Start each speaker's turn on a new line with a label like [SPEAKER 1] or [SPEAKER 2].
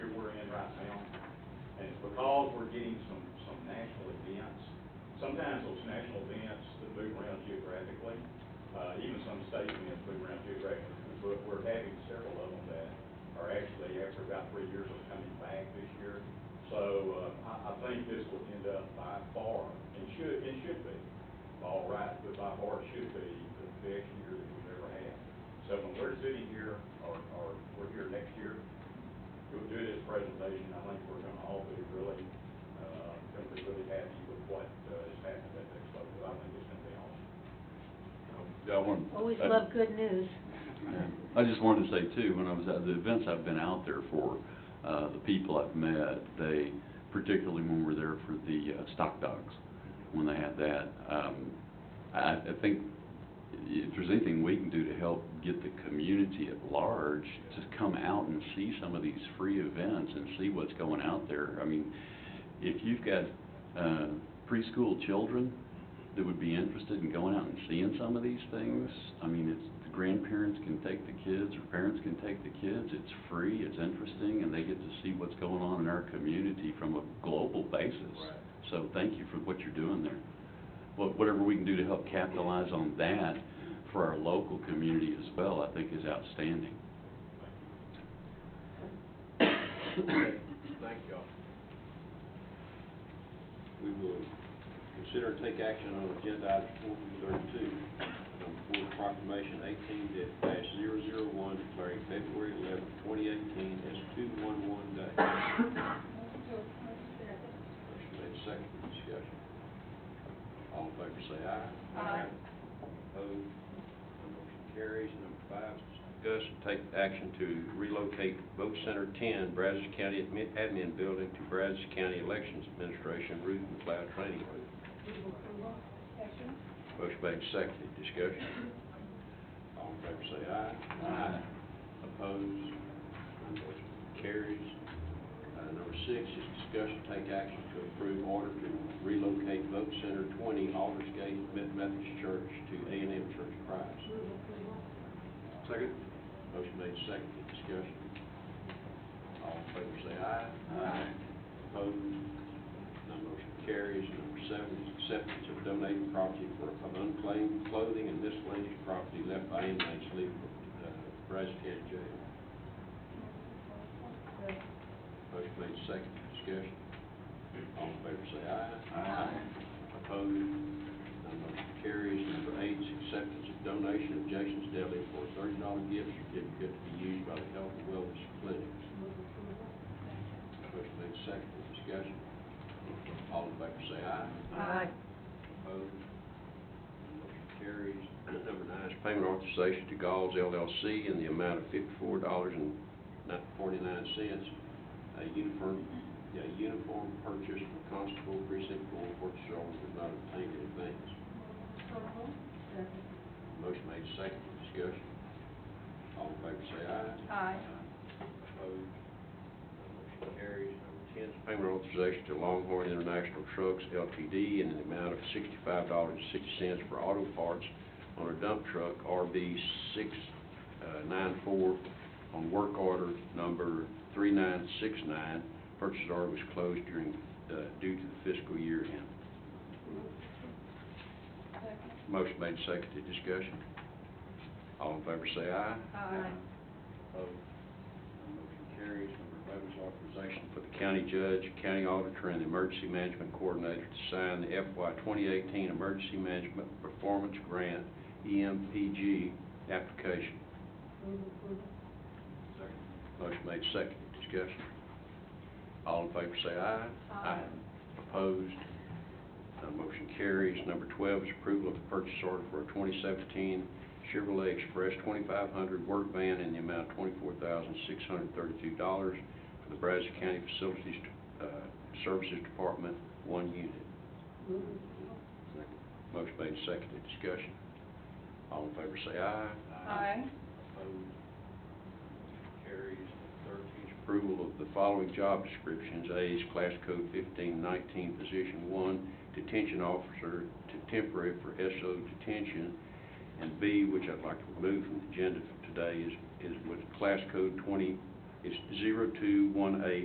[SPEAKER 1] because we're getting some, some national events, sometimes those national events that move around geographically, uh, even some state events move around geographically, but we're having several of them that are actually, after about three years, are coming back this year. So, uh, I, I think this will end up by far, and should, and should be, all right, but by far it should be the best year that we've ever had. So when we're sitting here, or, or we're here next year, we'll do this presentation, I think we're gonna all be really, uh, gonna be really happy with what, uh, is happening at Expo, because I think it's gonna be awesome.
[SPEAKER 2] Yeah, I want.
[SPEAKER 3] Always love good news.
[SPEAKER 2] I just wanted to say too, when I was at the events I've been out there for, uh, the people I've met, they, particularly when we're there for the uh, stock dogs, when they had that, um, I, I think if there's anything we can do to help get the community at large to come out and see some of these free events and see what's going out there, I mean, if you've got, uh, preschool children that would be interested in going out and seeing some of these things, I mean, it's, the grandparents can take the kids, or parents can take the kids, it's free, it's interesting, and they get to see what's going on in our community from a global basis.
[SPEAKER 1] Right.
[SPEAKER 2] So thank you for what you're doing there. What, whatever we can do to help capitalize on that for our local community as well, I think is outstanding.
[SPEAKER 4] Okay, Thank y'all. We will consider and take action on agenda item four thirty-two, number four proclamation eighteen dash zero zero one declaring February eleventh, twenty eighteen as two one one day. Motion made second for discussion. All in favor say aye.
[SPEAKER 5] Aye.
[SPEAKER 4] Opposed, motion carries. Number five, discuss and take action to relocate vote center ten, Brazos County Admi- Admin Building to Brazos County Elections Administration Route and Cloud Training Room. Motion made, seconded, discussion. All in favor say aye. Aye. Opposed, motion carries. Uh, number six is discussion, take action to approve order to relocate vote center twenty, Aldersgate Methodist Church to A and M Church of Christ. Second. Motion made, seconded, discussion. All in favor say aye. Aye. Opposed, none motion carries. Number seven is acceptance of donated property for of unclaimed clothing and miscellaneous property left by inmates leaving uh, Brazos County Jail. Motion made, second, discussion. All in favor say aye. Aye. Opposed, none motion carries. Number eight is acceptance of donation of Jason's Deli for a thirty dollar gift certificate to be used by the Health and Wellness Clinic. Motion made, second, discussion. All in favor say aye.
[SPEAKER 3] Aye.
[SPEAKER 4] Opposed? Motion carries. Number nine is payment authorization to Galls LLC in the amount of fifty-four dollars and forty-nine cents. A uniform, yeah, uniform purchase for constable precinct four, purchase order was not obtained in advance. Motion made second for discussion. All in favor say aye.
[SPEAKER 5] Aye.
[SPEAKER 4] Opposed? Motion carries. Number ten is payment authorization to Longhorn International Trucks LTD in an amount of sixty-five dollars and sixty cents for auto parts on a dump truck RB six uh, nine four on work order number three nine six nine. Purchase order was closed during, uh, due to the fiscal year end. Motion made, seconded, discussion. All in favor say aye.
[SPEAKER 5] Aye.
[SPEAKER 4] Opposed? None Motion carries. Number eleven is authorization for the county judge, county auditor, and the emergency management coordinator to sign the FY 2018 Emergency Management Performance Grant, E EMPG, application. Motion made second. Discussion. All in favor say aye.
[SPEAKER 5] Aye.
[SPEAKER 4] Opposed? None motion carries. Number twelve is approval of the purchase order for a twenty seventeen Chevrolet Express twenty-five hundred work van in the amount of twenty-four thousand six hundred thirty-two dollars for the Brazos County Facilities, uh, Services Department, one unit. Motion made second. Discussion. All in favor say aye.
[SPEAKER 5] Aye.
[SPEAKER 4] Opposed? Carries. Thirteen is approval of the following job descriptions. A is class code fifteen nineteen, position one, detention officer to temporary for SO detention. And B, which I'd like to remove from the agenda for today, is, is with class code twenty, is zero two one eight